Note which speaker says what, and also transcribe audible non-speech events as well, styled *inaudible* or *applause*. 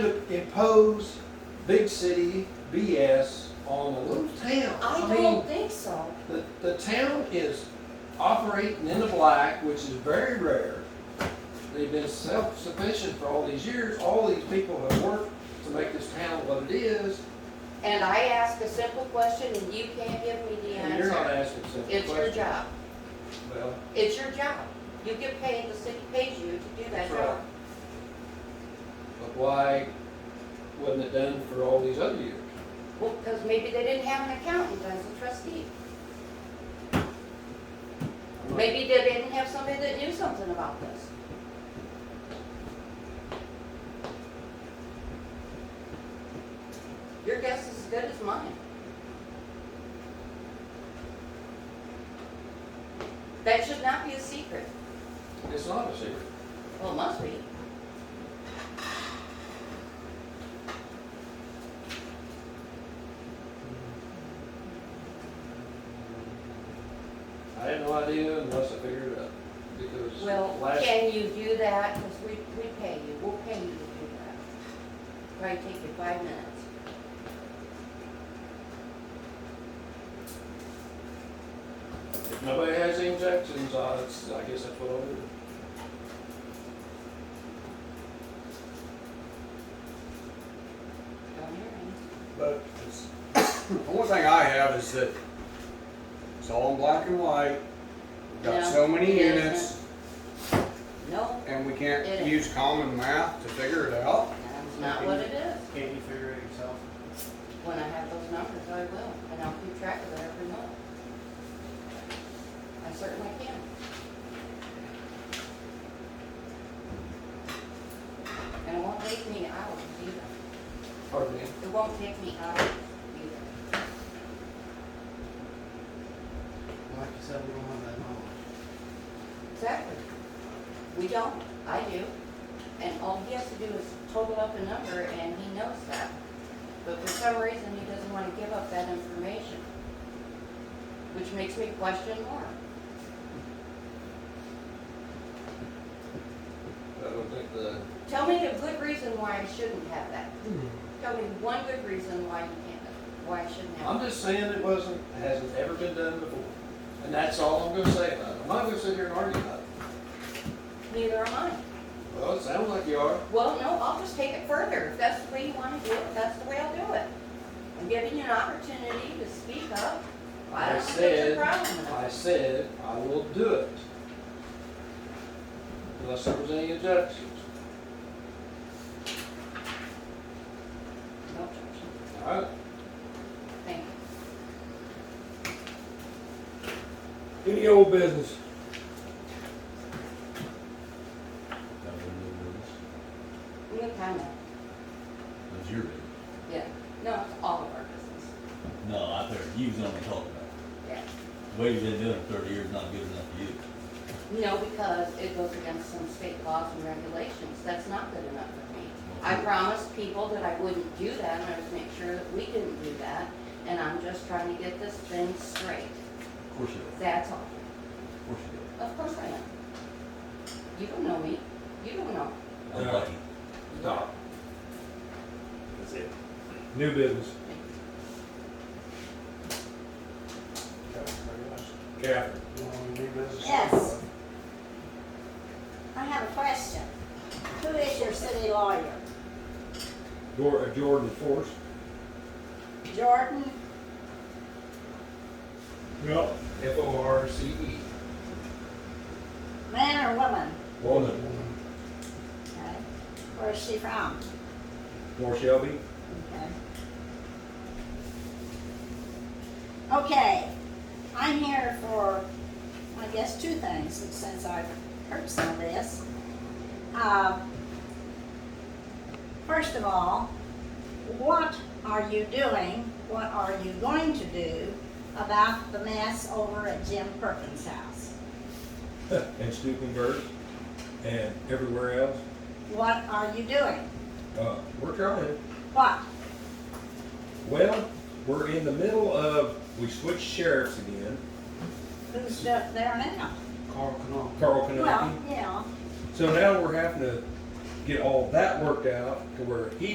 Speaker 1: impose big city BS on a little town.
Speaker 2: I
Speaker 1: mean,
Speaker 2: don't think so.
Speaker 1: the, the town is operating in the black, which is very rare. They've been self-sufficient for all these years. All these people have worked to make this town what it is,
Speaker 2: And I ask a simple question and you can't give me the
Speaker 1: and you're not
Speaker 2: answer.
Speaker 1: asking simple
Speaker 2: It's your
Speaker 1: questions.
Speaker 2: job.
Speaker 1: Well,
Speaker 2: It's your job. You get paid, the city pays you to do that
Speaker 1: That's right.
Speaker 2: job.
Speaker 1: but why wasn't it done for all these other years?
Speaker 2: Well, because maybe they didn't have an accountant as a trustee.
Speaker 1: I'm not-
Speaker 2: Maybe they didn't have somebody that knew something about this. Your guess is as good as mine. That should not be a secret.
Speaker 1: It's not a secret.
Speaker 2: Well, it must be.
Speaker 1: I had no idea unless I figured it out, because
Speaker 2: Well,
Speaker 1: last,
Speaker 2: can you do that? Because we, we pay you, we'll pay you to do that. Probably take you five minutes.
Speaker 1: if nobody has any objections, I, that's- I guess that's what I'll do.
Speaker 2: Don't hear me.
Speaker 3: But it's, *coughs* the only thing I have is that it's all in black and white. We've got
Speaker 2: No,
Speaker 3: so many
Speaker 2: it
Speaker 3: units
Speaker 2: No,
Speaker 3: and we
Speaker 2: It
Speaker 3: can't
Speaker 2: is.
Speaker 3: use common math to figure it out.
Speaker 2: that's not what it is.
Speaker 4: Can't you figure it yourself?
Speaker 2: When I have those numbers, I will, and I'll keep track of it every month. I certainly can. And it won't take me hours either.
Speaker 1: Pardon me?
Speaker 2: It won't take me hours either.
Speaker 4: Like you said, we don't have that knowledge.
Speaker 2: Exactly. We don't, I do. And all he has to do is total up a number, and he knows that. But for some reason, he doesn't want to give up that information, which makes me question more.
Speaker 1: I don't think the,
Speaker 2: Tell me a good reason why I shouldn't have that. Tell me one good reason why you can't, why I shouldn't
Speaker 1: I'm
Speaker 2: have it.
Speaker 1: just saying it wasn't, hasn't ever been done before, and that's all I'm gonna say about it. I'm not gonna sit here and argue about it.
Speaker 2: Neither am I.
Speaker 1: Well, it sounds like you are.
Speaker 2: Well, no, I'll just take it further. If that's the way you want to do it, that's the way I'll do it. I'm giving you an opportunity to speak up. I
Speaker 1: I
Speaker 2: don't think there's
Speaker 1: said,
Speaker 2: a problem with
Speaker 1: I
Speaker 2: it.
Speaker 1: said, I will do it. Unless there was any objections.
Speaker 2: No objection.
Speaker 1: All right,
Speaker 2: Thank you.
Speaker 5: Any old business?
Speaker 6: That would be good.
Speaker 2: We have time now.
Speaker 6: That's your business.
Speaker 2: Yeah. No, it's all of our business.
Speaker 6: No, I heard you was only talking about,
Speaker 2: Yeah.
Speaker 6: it. the way you've been doing it thirty years, not good enough for you.
Speaker 2: No, because it goes against some state laws and regulations. That's not good enough for me. I promised people that I wouldn't do that, and I was making sure that we didn't do that, and I'm just trying to get this thing straight.
Speaker 6: Of course you are,
Speaker 2: That's all.
Speaker 6: of course you
Speaker 2: Of course I am. You don't know me. You don't know.
Speaker 6: are. I'm
Speaker 5: Yeah.
Speaker 6: lucky.
Speaker 1: stop.
Speaker 4: That's it.
Speaker 5: New business. Catherine.
Speaker 4: You want to do business?
Speaker 7: Yes. I have a question. Who is your city lawyer?
Speaker 5: Dor- uh, Jordan Force.
Speaker 7: Jordan?
Speaker 5: Yep.
Speaker 1: F O R C E.
Speaker 7: Man or woman?
Speaker 5: Woman.
Speaker 7: Okay. Where is she from?
Speaker 5: Moore Shelby.
Speaker 7: Okay. Okay, I'm here for, I guess, two things since I've heard some of this. Uh, First of all, what are you doing, what are you going to do about the mess over at Jim Perkins' house?
Speaker 5: and Stukenberg. And everywhere else.
Speaker 7: What are you doing?
Speaker 5: Uh, we're trying.
Speaker 7: What?
Speaker 5: Well, we're in the middle of, we switched sheriffs again.
Speaker 7: Who's up there now?
Speaker 4: Carl Canal.
Speaker 5: Carl
Speaker 7: Well,
Speaker 5: Canopy.
Speaker 7: yeah.
Speaker 5: So now we're having to get all that worked out to where he